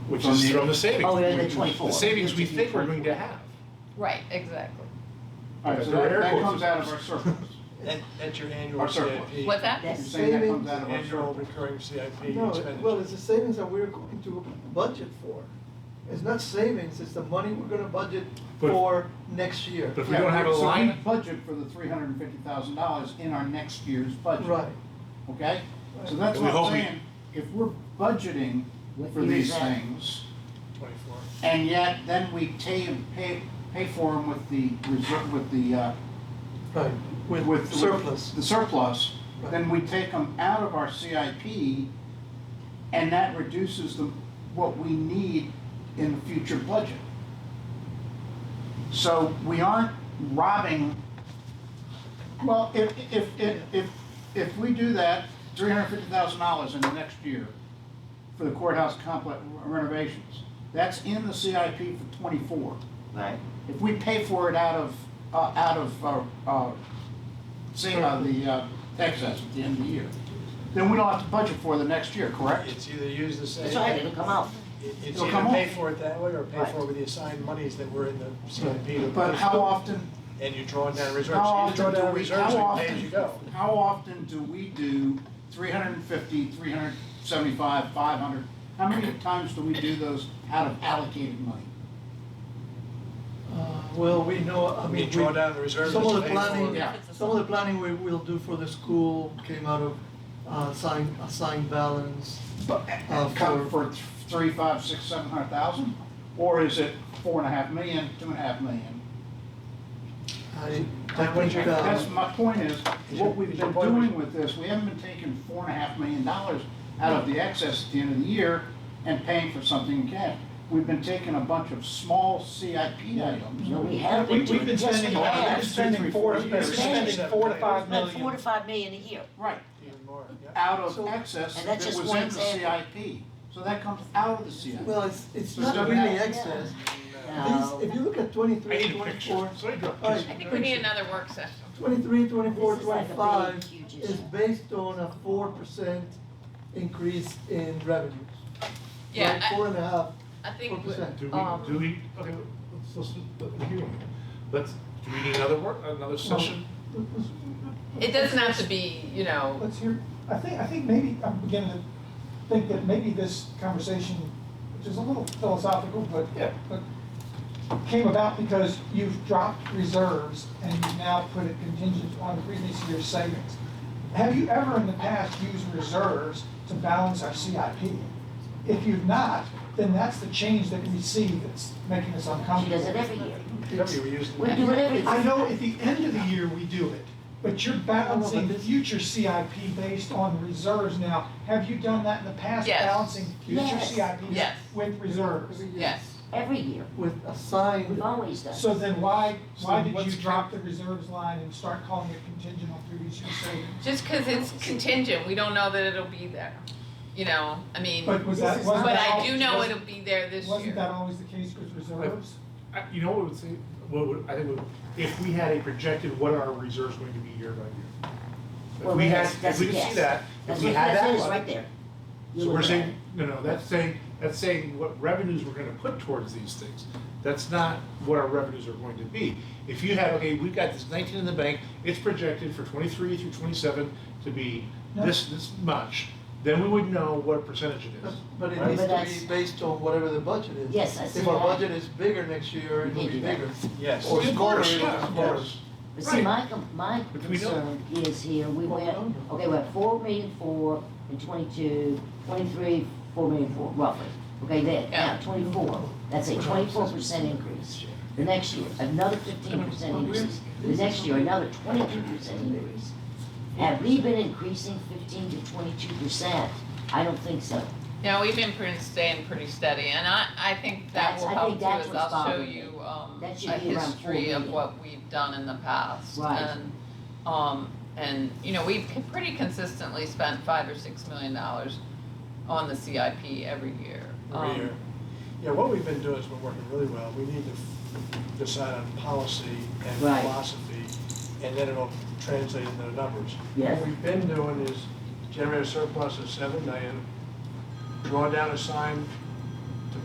which is from the savings. Oh, yeah, the 24. The savings we think we're going to have. Right, exactly. All right, so They're that, that airports. comes out of our surplus. That, that's your annual Our CIP. surplus. What's that? You're Yes. saying that comes out of our Annual surplus. recurring CIP No, expenditure. well, it's the savings that we're going to budget for. It's not savings, it's the money we're gonna budget But- for next year. But if we don't have a line, So we budget for the three hundred and fifty thousand dollars in our next year's budget. Right, Okay? So that's And we what I'm hope we- saying, if we're budgeting What for year is these that? things, Twenty-four. and yet then we ta- pay, pay for them with the reserve, with the, uh, right, with, with. surplus. The surplus, Right. then we take them out of our CIP, and that reduces the, what we need in the future budget. So we aren't robbing, well, if, if, if, if, if we do that, three hundred fifty thousand dollars in the next year for the courthouse complex renovations, that's in the CIP for twenty-four. Right. If we pay for it out of, uh, out of, uh, uh, say, uh, the, uh, excess at the end of the year, then we don't have to budget for the next year, correct? It's either use the same. That's right, it'll come out. It- It's It'll either come pay off. for it that way or pay for it with the assigned monies that were in the CIP. But how often, And you draw down reserves. how You either draw often do down we, reserves how or you pay as you often, go. how often do we do three hundred and fifty, three hundred seventy-five, five hundred? How many times do we do those out of allocated money? Uh, well, we know, I You mean, we, draw down the reserves. some and of the pay for it. planning, Yeah. some of the planning we will do for the school came out of, uh, assigned, assigned balance. But, Uh, cover for th- three, five, six, seven hundred thousand? Or is it four and a half million, two and a half million? I, I Which went, you- uh, That's my point is, what we've Is your been point- doing with this, we haven't been taking four and a half million dollars out of the excess at the end of the year and paying for something in cash. We've been taking a bunch of small CIP items. No, we have been We- We've doing been it. Yes, spending, we we've been have. spending four, Yes, we we're have. spending four to five Like four to million. five million a year. Right, Even more, yeah. out of So- excess And that that's was just in one the example. CIP. So that comes out of the CIP. well, it's, it's So not it's really not- excess. No. These, if you look at I twenty-three, need a picture. twenty-four, So I drew a Oh, all right, I think we need another work session. 23, 24, This is like a big, 25 huge is issue. based on a 4% increase in revenues. Yeah, Like I- Four and a half. I think, we- 4%. Do Um, we, do we, okay, let's, let's, let's, hear me. let's, do we need another work, another session? um, it doesn't have to be, you know, Let's hear, I think, I think maybe, I'm beginning to think that maybe this conversation, which is a little philosophical, but, Yeah. but came about because you've dropped reserves and you've now put it contingent on the previous year's savings. Have you ever in the past used reserves to balance our CIP? If you've not, then that's the change that we see that's making us She uncomfortable. does it every year. Remember, we used. We do it every year. I know at the end of the year we do it, but you're balancing future CIP based on reserves now. Have you done that in the past, Yes. balancing future Yes. CIP Yes. with reserves? every year yes. Every year. With We've assigned, always done. So then why, why So did what's you drop the reserves line and start calling it contingent on previous year savings? Just because it's contingent, we don't know that it'll be there, you know, I mean, But was This that, is wasn't but that I al- do know wasn't- it'll be there this Wasn't year. that always the case with reserves? I, you know what would say, what would, I think would, if we had a projected, what are our reserves going to be year by year? Well, If we had, that's- that's if we a could see guess. that, if That's we what, had that that's it, one. right there. You So look we're at saying, no, no, that's saying, that's saying what revenues we're gonna put towards these things. That's not what our revenues are going to be. If you have, okay, we've got this nineteen in the bank, it's projected for twenty-three through twenty-seven to be this, this much, then we would know what percentage it is. but it Right. needs But to that's- be based on whatever the budget is. Yes, I see If our that. budget is bigger next year, it'll Maybe be that. bigger. Yes. Or Of smaller, course, it'll be yeah, of smaller. course. But see, Right. my, com- my But we don't. concern is here, we Well, we went, don't know. okay, we're at four million four in twenty-two, twenty-three, four million four, roughly. Okay, there, now Yeah. twenty-four, that's a twenty-four percent increase. The next year, another fifteen percent increase. The next year, another twenty-two percent increase. Have we been increasing fifteen to twenty-two percent? I don't think so. No, we've been pretty, staying pretty steady, and I, I think that That's- will I help think too, that's is what's I'll show bothering me. you, um, a That should be around four history of million. what we've done in the past. Right. And, um, and, you know, we've con- pretty consistently spent five or six million dollars on the CIP every year. Every Um, year. Yeah, what we've been doing has been working really well. We need to f- decide on policy and Right. philosophy, and then it'll translate into the numbers. Yes. What we've been doing is generate a surplus of seven million, draw down assigned